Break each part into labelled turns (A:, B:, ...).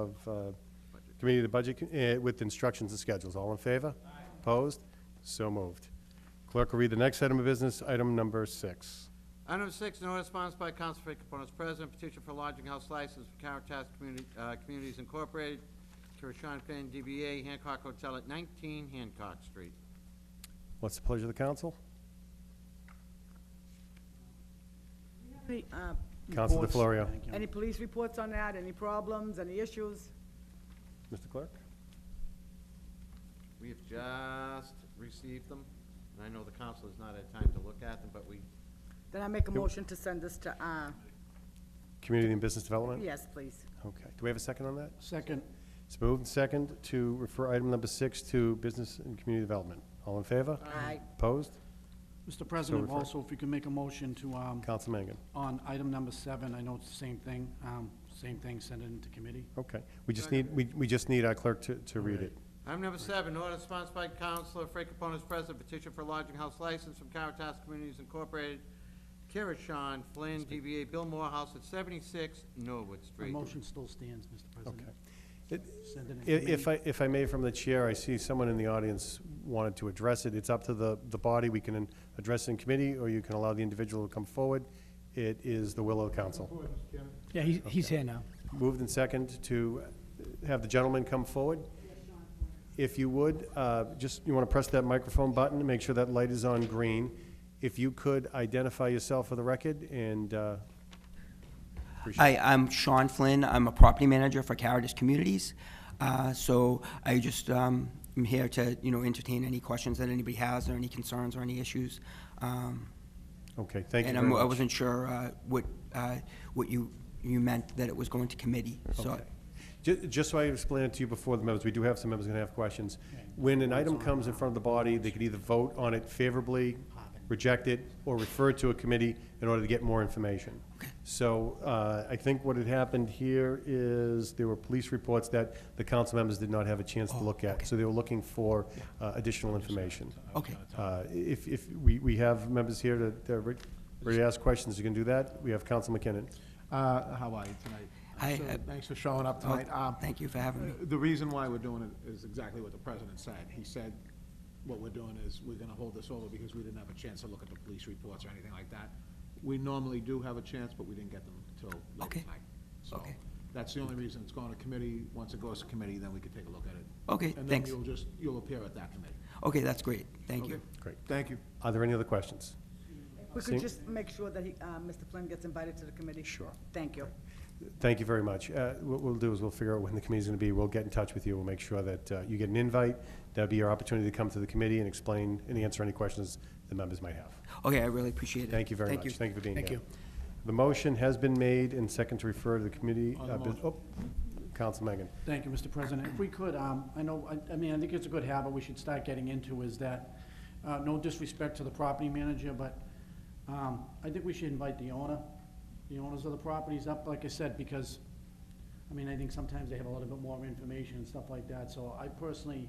A: of uh, Committee to Budget eh, with instructions and schedules. All in favor? Opposed? So moved. Clerk will read the next item of business, item number six.
B: Item number six, an order sponsored by Counsel Frank Caponas, President, petition for lodging house license for Caritas Communi- uh, Communities Incorporated, Kirishon Finn, DBA Hancock Hotel at 19 Hancock Street.
A: What's the pleasure of the council?
C: Any, uh,
A: Council
D: Reports.
A: DeFlorio.
D: Thank you.
C: Any police reports on that? Any problems, any issues?
A: Mr. Clerk?
B: We have just received them, and I know the council has not had time to look at them, but we,
C: Then I make a motion to send this to, uh,
A: Community and Business Development?
C: yes, please.
A: Okay. Do we have a second on that?
D: Second,
A: It's moved and second to refer item number six to Business and Community Development. All in favor?
C: Aye.
A: Opposed?
D: Mr. President,
A: refer-
D: also, if you can make a motion to, um,
A: Council Mangan.
D: on item number seven, I know it's the same thing, um, same thing, send it into committee.
A: Okay. We just need, we we just need our clerk to to read it.
B: item number seven, order sponsored by Counsel Frank Caponas, President, petition for lodging house license from Caritas Communities Incorporated, Kirishon Flynn, DBA Bill Morehouse at 76 Norwood
D: The
B: Street.
D: motion still stands, Mr. President.
A: Okay. It-
D: Send it in
A: I- If
D: committee.
A: I, if I may, from the chair, I see someone in the audience wanted to address it. It's up to the, the body. We can address it in committee, or you can allow the individual to come forward. It is the will of council.
E: Yeah, he's, he's here now.
A: Moved and second to have the gentleman come forward. If you would, uh, just, you want to press that microphone button to make sure that light is on green. If you could identify yourself for the record and, uh, appreciate
F: Hi, I'm Sean Flynn. I'm a property manager for Caritas Communities. Uh, So I just, um, am here to, you know, entertain any questions that anybody has or any concerns or any issues. Um,
A: Okay, thank you
F: And
A: very
F: I'm- I
A: much.
F: wasn't sure uh, what, uh, what you, you meant that it was going to committee, so.
A: Okay. Ju- Just so I explained it to you before the members, we do have some members going to have questions. When an item comes in front of the body, they could either vote on it favorably, reject it, or refer to a committee in order to get more information. So uh, I think what had happened here is there were police reports that the council members did not have a chance to look at. So they were looking for uh, additional information.
F: Okay.
A: Uh, If, if, we, we have members here that, that are re- ready to ask questions, you can do that. We have Council McKinnon.
G: Uh, How are you tonight?
F: Hi,
G: So,
F: uh,
G: Thanks for showing up
F: Oh,
G: tonight. Um,
F: Thank you for having me.
G: The reason why we're doing it is exactly what the president said. He said, what we're doing is, we're gonna hold this over because we didn't have a chance to look at the police reports or anything like that. We normally do have a chance, but we didn't get them until late
F: Okay.
G: tonight. So,
F: Okay.
G: that's the only reason it's going to committee. Once it goes to committee, then we can take a look at it.
F: Okay,
G: And then
F: thanks.
G: you'll just, you'll appear at that committee.
F: Okay, that's great. Thank you.
G: Okay?
A: Great.
G: Thank you.
A: Are there any other questions?
C: We
A: Sing-
C: could just make sure that he, uh, Mr. Flynn gets invited to the committee.
A: Sure.
C: Thank you.
A: Thank you very much. Uh, What we'll do is we'll figure out when the committee's going to be. We'll get in touch with you. We'll make sure that uh, you get an invite. That'll be your opportunity to come to the committee and explain and answer any questions the members might have.
F: Okay, I really appreciate it.
A: Thank you very much.
F: Thank you.
A: Thank you for being here.
D: Thank you.
A: The motion has been made and second to refer to the committee.
G: On the
A: uh, bus-
G: motion.
A: oh, Council Mangan.
D: Thank you, Mr. President. If we could, um, I know, I, I mean, I think it's a good habit we should start getting into is that, uh, no disrespect to the property manager, but, um, I think we should invite the owner, the owners of the properties up, like I said, because, I mean, I think sometimes they have a little bit more information and stuff like that, so I personally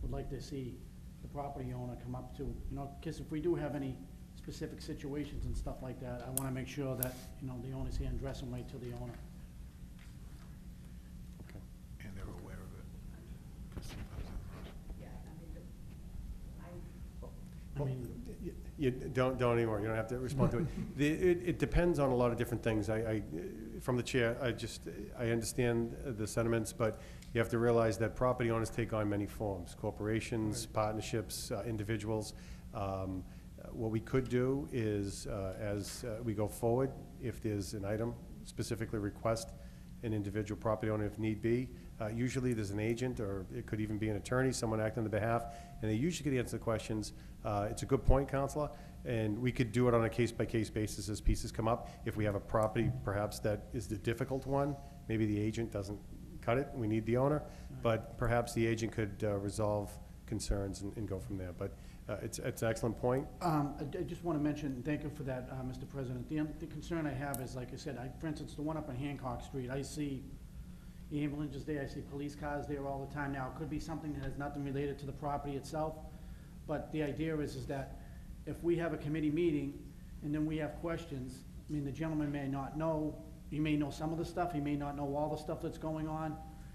D: would like to see the property owner come up to, you know, because if we do have any specific situations and stuff like that, I wanna make sure that, you know, the owner's here and dress them right to the owner.
A: Okay.
G: And they're aware of it.
D: I mean,
A: You- You, don't, don't anymore, you don't have to respond to it. The, it, it depends on a lot of different things. I, I, from the chair, I just, I understand the sentiments, but you have to realize that property owners take on many forms, corporations, partnerships, uh, individuals. Um, What we could do is, uh, as uh, we go forward, if there's an item specifically request, an individual property owner if need be. Uh, Usually, there's an agent, or it could even be an attorney, someone acting on their behalf, and they usually could answer the questions. Uh, It's a good point, Counselor, and we could do it on a case-by-case basis as pieces come up. If we have a property perhaps that is the difficult one, maybe the agent doesn't cut it, we need the owner, but perhaps the agent could uh, resolve concerns and and go from there. But uh, it's it's an excellent point.
D: Um, I I just want to mention, thank you for that, uh, Mr. President. The un- The concern I have is, like I said, I, for instance, the one up on Hancock Street, I see ambulances there, I see police cars there all the time now. It could be something that has nothing related to the property itself, but the idea is, is that if we have a committee meeting and then we have questions, I mean, the gentleman may not know, he may know some of the stuff, he may not know all the stuff that's going on,